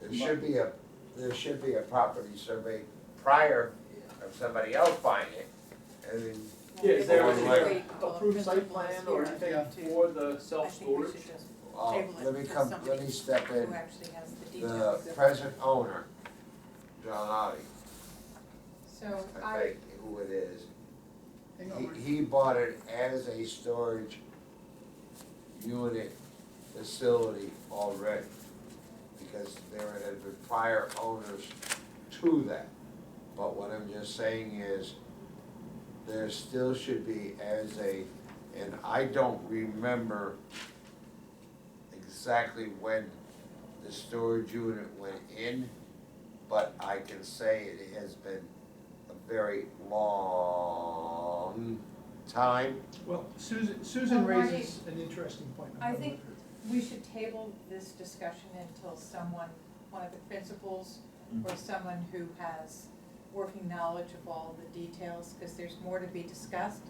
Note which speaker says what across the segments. Speaker 1: There should be a, there should be a property survey prior of somebody else buying it, and then
Speaker 2: Yeah, is
Speaker 1: there
Speaker 2: Approved site plan or anything for the self-storage?
Speaker 1: I'll,
Speaker 3: Table it
Speaker 1: uh, let me
Speaker 3: to
Speaker 1: come, let
Speaker 3: somebody
Speaker 1: me step
Speaker 3: Who
Speaker 1: in.
Speaker 3: actually has the
Speaker 1: The
Speaker 3: details.
Speaker 1: present owner, John Otti,
Speaker 4: So
Speaker 1: I
Speaker 4: I,
Speaker 1: think who it is,
Speaker 2: Hang on, Mark.
Speaker 1: he, he bought it as a storage unit facility already. Because there had been prior owners to that. But what I'm just saying is, there still should be as a, and I don't remember exactly when the storage unit went in, but I can say it has been a very long time.
Speaker 5: Well, Susan, Susan
Speaker 6: Oh,
Speaker 4: Well, why-
Speaker 5: raises an interesting point.
Speaker 4: I think- we should table this discussion until someone, one of the principals or someone who has working knowledge of all the details, because there's more to be discussed.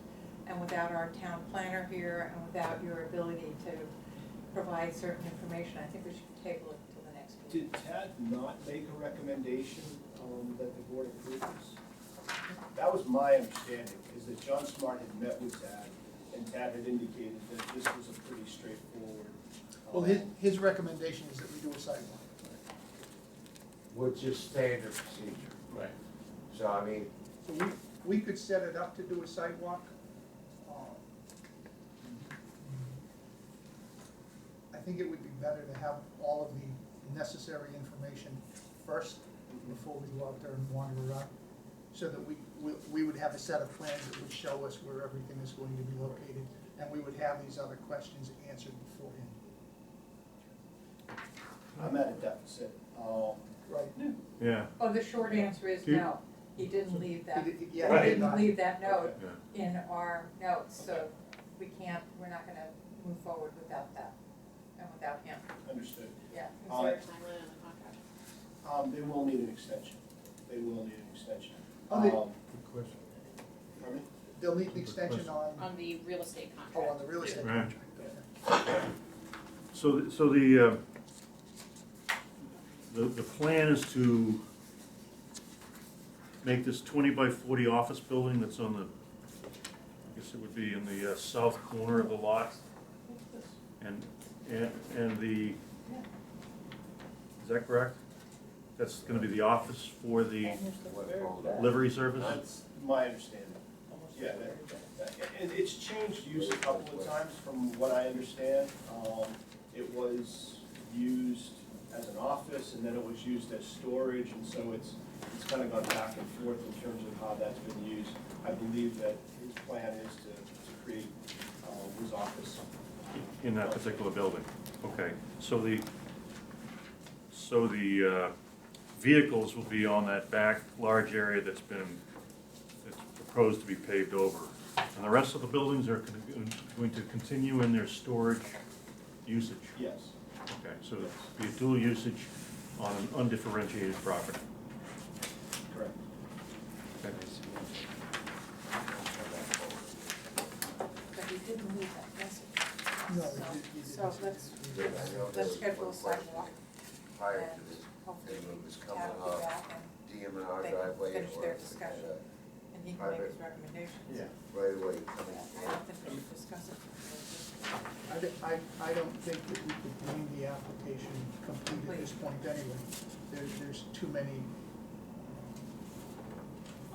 Speaker 4: And without our town planner here and without your ability to provide certain information, I think we should table it till the next meeting.
Speaker 7: Did Ted not make a recommendation, um, that the board approves? That was my understanding, is that John Smart had met with Tad, and Tad had indicated that this was a pretty straightforward. um,
Speaker 5: Well, his, his recommendation is that we do a sidewalk.
Speaker 1: Which is standard procedure.
Speaker 2: Right.
Speaker 1: So I mean,
Speaker 5: So we, we could set it up to do a sidewalk. um, I think it would be better to have all of the necessary information first before we go out there and wander around. So that we, we, we would have a set of plans that would show us where everything is going to be located, and we would have these other questions answered beforehand.
Speaker 7: I'm at a deficit, um,
Speaker 5: Right.
Speaker 8: Yeah,
Speaker 4: Oh, the short answer is
Speaker 8: Do you-
Speaker 4: no, he didn't leave that,
Speaker 5: He did-
Speaker 4: he
Speaker 5: Yeah, he did
Speaker 4: didn't
Speaker 5: not.
Speaker 4: leave that note
Speaker 8: yeah.
Speaker 4: in our notes, so we can't, we're not gonna move forward without that and without him,
Speaker 7: understood.
Speaker 4: yeah.
Speaker 7: Uh, Um, they will need an extension, they will need an extension.
Speaker 5: Oh, they-
Speaker 7: Um,
Speaker 8: Good question.
Speaker 7: pardon me?
Speaker 5: They'll need an extension on,
Speaker 9: on the real estate
Speaker 5: oh,
Speaker 9: contract.
Speaker 5: on the real estate
Speaker 8: Right.
Speaker 5: contract. okay.
Speaker 8: So, th- so the, uh, the, the plan is to make this twenty by forty office building that's on the, I guess it would be in the uh, south corner of the lot. And, and, and the, is that correct? That's gonna be the office for the
Speaker 1: what rolled out.
Speaker 8: livery service?
Speaker 7: That's my understanding. Yeah, that, that, and it's changed use a couple of times from what I understand. Um, it was used as an office and then it was used as storage and so it's, it's kind of gone back and forth in terms of how that's been used. I believe that his plan is to, to create, uh, his office.
Speaker 8: In that particular building, okay. So the, so the uh, vehicles will be on that back large area that's been, that's proposed to be paved over. And the rest of the buildings are con- going to continue in their storage usage.
Speaker 7: Yes,
Speaker 8: Okay, so it'll be a dual usage on an undifferentiated property.
Speaker 7: correct.
Speaker 4: But he didn't leave that
Speaker 5: No,
Speaker 4: message,
Speaker 5: he did- he did.
Speaker 4: so, so let's,
Speaker 1: Yeah, I know there
Speaker 4: let's
Speaker 1: was
Speaker 4: schedule
Speaker 1: one
Speaker 4: a sidewalk
Speaker 1: question Prior to
Speaker 4: and
Speaker 1: this,
Speaker 4: hopefully
Speaker 1: thing that was
Speaker 4: we
Speaker 1: coming
Speaker 4: have
Speaker 1: up.
Speaker 4: it back and,
Speaker 1: DM and R
Speaker 4: They
Speaker 1: driveway
Speaker 4: finish
Speaker 1: or.
Speaker 4: their discussion. and he can make his recommendations.
Speaker 7: Yeah.
Speaker 1: Right away.
Speaker 4: But I don't think we should discuss it.
Speaker 5: I, d- I- I don't think that we could deem the application complete at this point anyway. There's, there's too many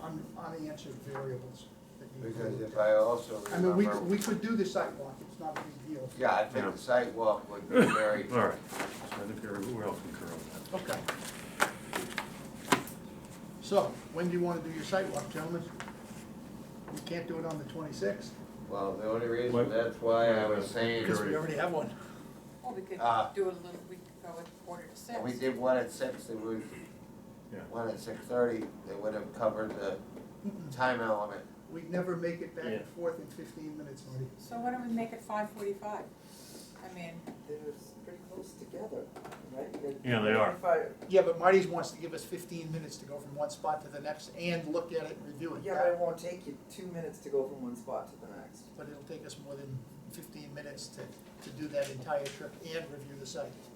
Speaker 5: um, un- unanswered variables that need to
Speaker 1: Because
Speaker 5: be
Speaker 1: if
Speaker 5: looked
Speaker 1: I also
Speaker 5: at. I mean, we,
Speaker 1: remember.
Speaker 5: we could do the sidewalk, it's not a big deal.
Speaker 1: Yeah, I think the sidewalk would be very,
Speaker 8: All right, so I think we're all concur on that.
Speaker 5: Okay. So, when do you wanna do your sidewalk, gentlemen? We can't do it on the twenty-sixth,
Speaker 1: well, the only reason,
Speaker 8: What?
Speaker 1: that's why I was saying,
Speaker 5: because we already have one.
Speaker 4: Or we could
Speaker 1: Ah.
Speaker 4: do it a little, we could go with quarter to six.
Speaker 1: we did one at six, they would,
Speaker 8: Yeah.
Speaker 1: one at six thirty, they would have covered the time element.
Speaker 5: We'd never make it back and
Speaker 8: Yeah.
Speaker 5: forth in fifteen minutes, Marty.
Speaker 4: So why don't we make it five forty-five? I mean,
Speaker 6: They're pretty close together, right? They're-
Speaker 8: Yeah, they are.
Speaker 6: If I-
Speaker 5: Yeah, but Marty's wants to give us fifteen minutes to go from one spot to the next and look at it and review it.
Speaker 6: Yeah, but it won't take you two minutes to go from one spot to the next.
Speaker 5: But it'll take us more than fifteen minutes to, to do that entire trip and review the site.